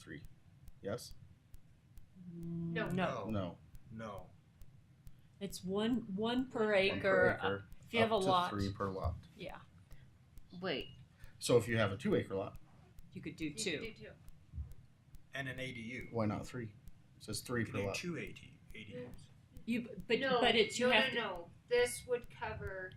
three. Yes. No. No. No. No. It's one one per One per acre. uh, if you up have a to lot, three per lot. yeah, Wait. So if you have a two acre lot, you could do you two. could do two. And an ADU. why not three? It says three You per can do lot. two AD, ADUs. You but no, but it's you no, have no, no. This would cover.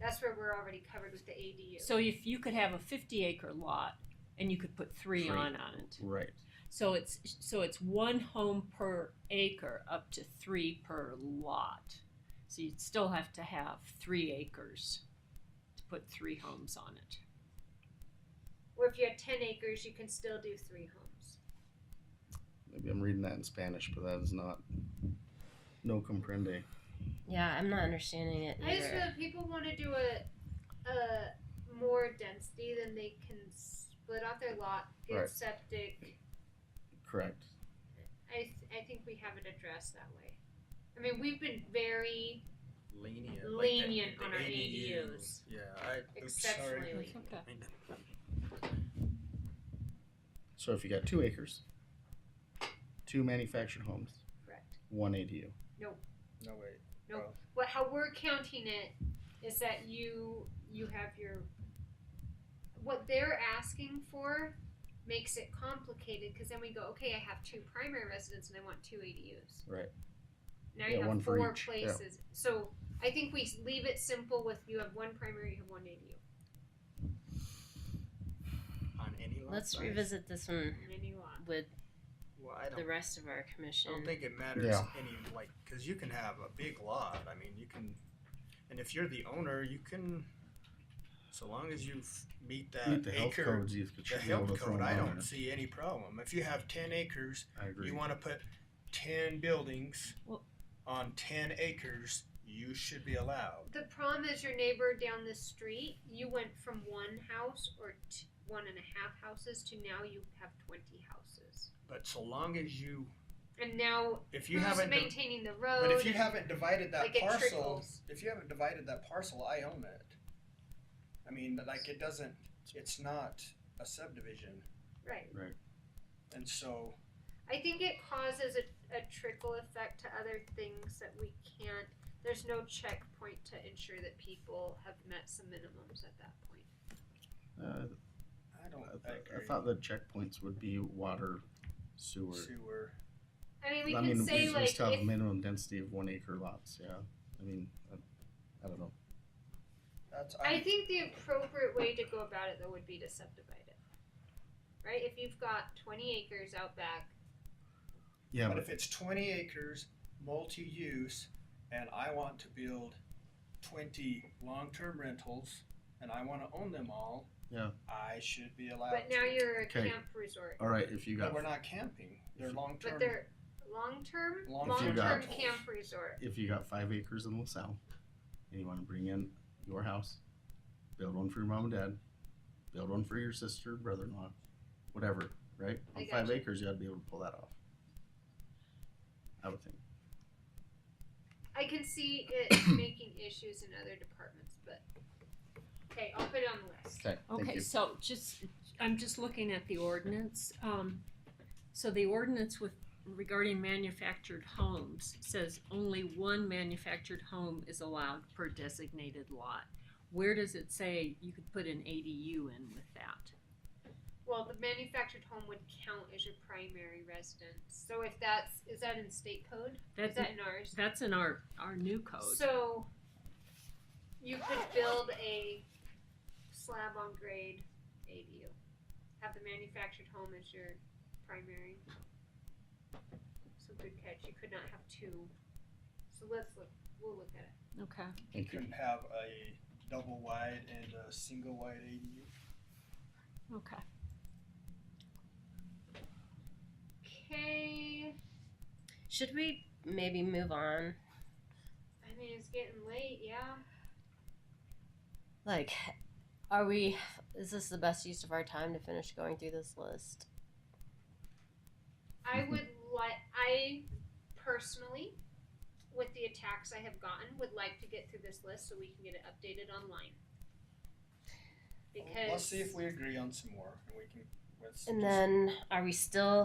That's where we're already covered with the ADU. to. So if you could have a fifty acre lot, and you could put three, Three. on on it. Right. So it's so it's one home per acre up to three per lot. So you'd still have to have three acres to put three homes on it. or if you had ten acres, you can still do three homes. Maybe I'm reading that in Spanish, but that is not. No comprende. Yeah, I'm not understanding it I just feel either. if people want to do a, a more density, then they can split off their lot, get Right. septic. Correct. I th- I think we haven't addressed that way. I mean, we've been very Lenient. like the- Lenient the on our ADUs. Yeah. I, oops, sorry. exceptionally. lenient. Okay. I mean, So if you got two acres, two manufactured homes, Correct. one ADU. No, wait. Uh, What how we're counting it is that you you have your what they're asking for makes it complicated because then we go okay I have two primary residents and I want two ADUs. Right. Now Yeah, you have one for four each, yeah. places. So I think we s- leave it simple with you have one primary, you have one ADU. On any lot Let's size? revisit this one And then you want with Well, I don't, the rest of our I commission. don't think it matters Yeah. any, like, because you can have a big lot. I mean, you can, and if you're the owner, you can, so long as you f- meet that Meet the health acre. codes. You should The be able health to throw code, them I on don't there. see any problem. If you have ten acres, I agree. you want to put ten buildings Well- on ten acres, you should be allowed. The problem is your neighbor down the street. You went from one house or t- one and a half houses to now you have twenty houses. But so long as you, And now if you who's haven't, di- maintaining the road? but if you haven't divided that like it parcel, trickles. if you haven't divided that parcel, I own it. I mean, like it doesn't, it's not a subdivision, right? and so I think it causes a, a trickle effect to other things that we can't. There's no checkpoint to ensure that people have met some minimums at that point. Uh, I don't. I, th- I agree. thought the checkpoints would be water, sewer. sewer. I mean, we I can mean, say we, we like still have if- minimum density of one acre lots. Yeah. I mean, I, I don't know. That's I think the appropriate way to go about it though would be to subdivide it. Right? If you've got twenty acres out back, Yeah, But but if it's twenty acres, multi-use, and I want to build twenty long-term rentals, and I wanna own them all. Yeah. I should be allowed. but now to. you're a Okay. camp resort. all right. If you But got we're not camping, they're If- long-term. But they're long term Long- long If you term got- camp resort. if you got five acres in LaSalle, and you want to bring in your house, build one for your mom and dad, build one for your sister, brother-in-law, whatever. Right? I On five gotcha. acres, you ought to be able to pull that off. I would think. I can see it making issues in other departments, but okay, I'll put it on the list. Okay. Thank Okay, you. so just, I'm just looking at the ordinance. Um, so the ordinance with regarding manufactured homes says only one manufactured home is allowed per designated lot. Where does it say you could put an ADU in with that? Well, the manufactured home would count as your primary residence. So if that's is that in state code? Is That's, that in ours? that's in our, our new code. So you could build a slab on grade ADU. Have the manufactured home as your primary. So good catch. You could not have two. So let's look. We'll look at it. Okay. You Thank you. can have a double wide and a single wide ADU. Okay. Okay. Should we maybe move on? I mean, it's getting late. Yeah. Like, are we? Is this the best use of our time to finish going through this list? I would like. I personally, with the attacks I have gotten, would like to get through this list so we can get it updated online. Because Let's see if we agree on some more, and we can. let's And just- then, are we still